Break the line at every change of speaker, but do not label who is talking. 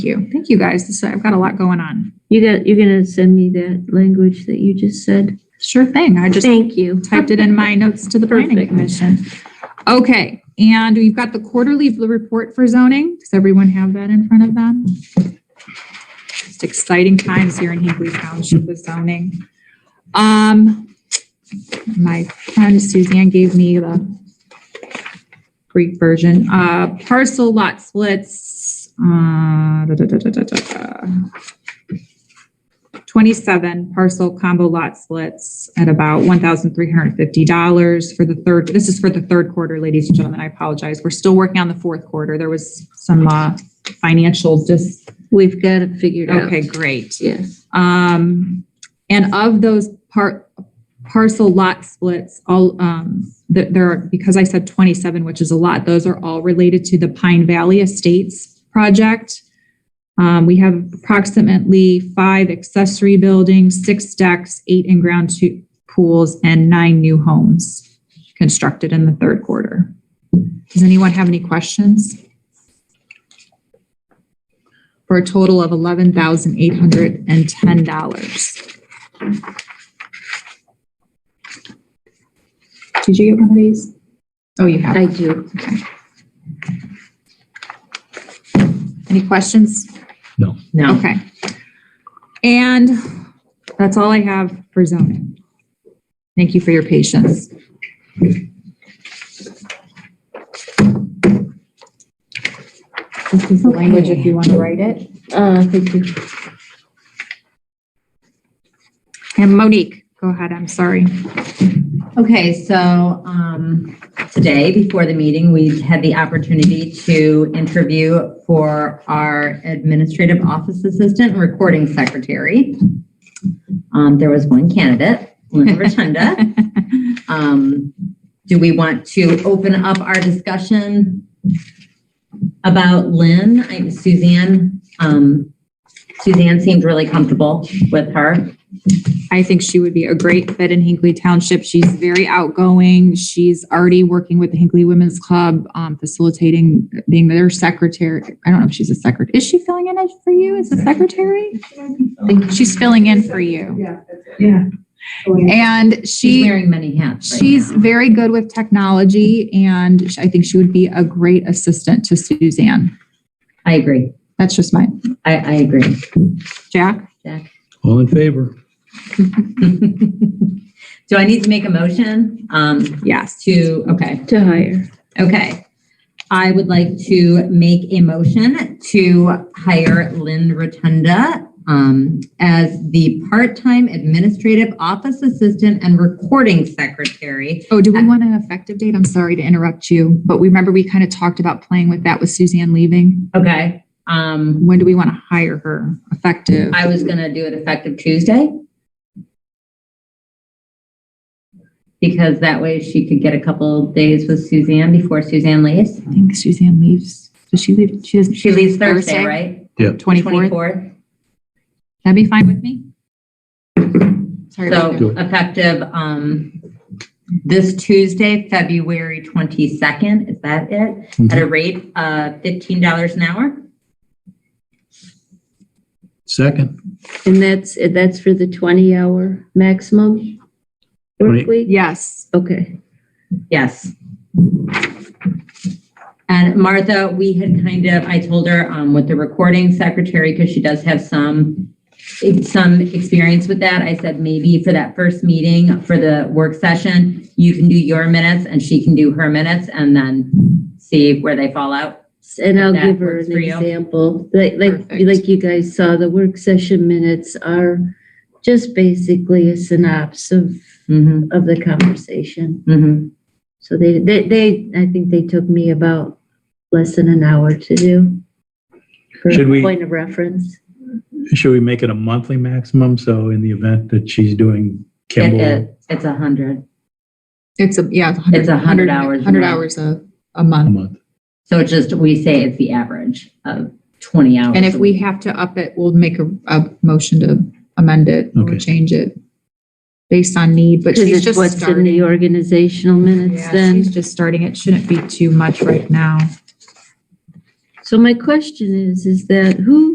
you. Thank you guys. This, I've got a lot going on.
You got, you're gonna send me that language that you just said?
Sure thing. I just
Thank you.
typed it in my notes to the planning
Perfect.
commission. Okay, and we've got the quarterly report for zoning. Does everyone have that in front of them? Just exciting times here in Hinkley Township with zoning. Um, my friend Suzanne gave me the Greek version, uh, parcel lot splits, uh, da, da, da, da, da, da, da. 27 parcel combo lot splits at about $1,350 for the third, this is for the third quarter, ladies and gentlemen, I apologize. We're still working on the fourth quarter. There was some uh, financial just,
We've got it figured out.
okay, great.
Yes.
Um, and of those part, parcel lot splits, all, um, th- there are, because I said twenty-seven, which is a lot, those are all related to the Pine Valley Estates project. Um, we have approximately five accessory buildings, six decks, eight in-ground tu- pools, and nine new homes constructed in the third quarter. Does anyone have any questions? for a total of eleven thousand eight hundred and ten dollars. Did you get one of these? Oh, you have.
I do.
Any questions?
No.
No.
Okay. And that's all I have for zoning. Thank you for your patience. This is the language if you want to write it.
Uh, thank you.
And Monique, go ahead, I'm sorry.
Okay, so um, today, before the meeting, we had the opportunity to interview for our administrative office assistant and recording secretary. Um, There was one candidate, Lynn Rotunda. Um, Do we want to open up our discussion about Lynn? I- Suzanne, um, Suzanne seemed really comfortable with her.
I think she would be a great fit in Hinkley Township. She's very outgoing. She's already working with the Hinkley Women's Club, um, facilitating, being their secretary. I don't know if she's a secretary. Is she filling in for you as a secretary? I think she's filling in for you.
Yeah. Yeah.
And
She's
she,
wearing many hats right
she's
now.
very good with technology and I think she would be a great assistant to Suzanne.
I agree.
That's just my,
I, I agree.
Jack?
All in favor?
Do I need to make a motion? Um,
Yes.
to, okay,
To hire.
okay. I would like to make a motion to hire Lynn Rotunda um, as the part-time administrative office assistant and recording secretary.
Oh, do we want an effective date? I'm sorry to interrupt you, but we remember we kind of talked about playing with that with Suzanne leaving.
Okay, um,
When do we want to hire her effective?
I was gonna do it effective Tuesday. Because that way she could get a couple days with Suzanne before Suzanne leaves.
I think Suzanne leaves. Does she leave? She doesn't.
She leaves Thursday, right?
Twenty-fourth. That'd be fine with me. Sorry about that.
So effective, um, this Tuesday, February 22nd, is that it? At a rate of $15 an hour?
Second,
And that's, that's for the twenty hour maximum work
Twenty-
week?
Yes.
Okay.
Yes. And Martha, we had kind of, I told her, um, with the recording secretary, because she does have some, some experience with that. I said, maybe for that first meeting, for the work session, you can do your minutes and she can do her minutes and then see where they fall out.
And I'll
That
give her
works
an
for you?
example, like, like,
Perfect.
like you guys saw, the work session minutes are just basically a synopsis of,
Mm-hmm,
of the conversation.
mm-hmm.
So they, they, they, I think they took me about less than an hour to do. For
Should we-
point of reference.
should we make it a monthly maximum? So in the event that she's doing
It,
Kimball,
it, it's a hundred.
It's a, yeah.
It's a hundred hours a
Hundred
month.
hours a, a
a
month.
month,
So it's just, we say it's the average of twenty hours.
And if
a
we
week.
have to up it, we'll make a, a motion to amend it or
Okay.
change it based on need, but
Because
she's
it's
just
what's in
starting.
the organizational minutes
Yeah,
then.
she's just starting. It shouldn't be too much right now.
So my question is, is that who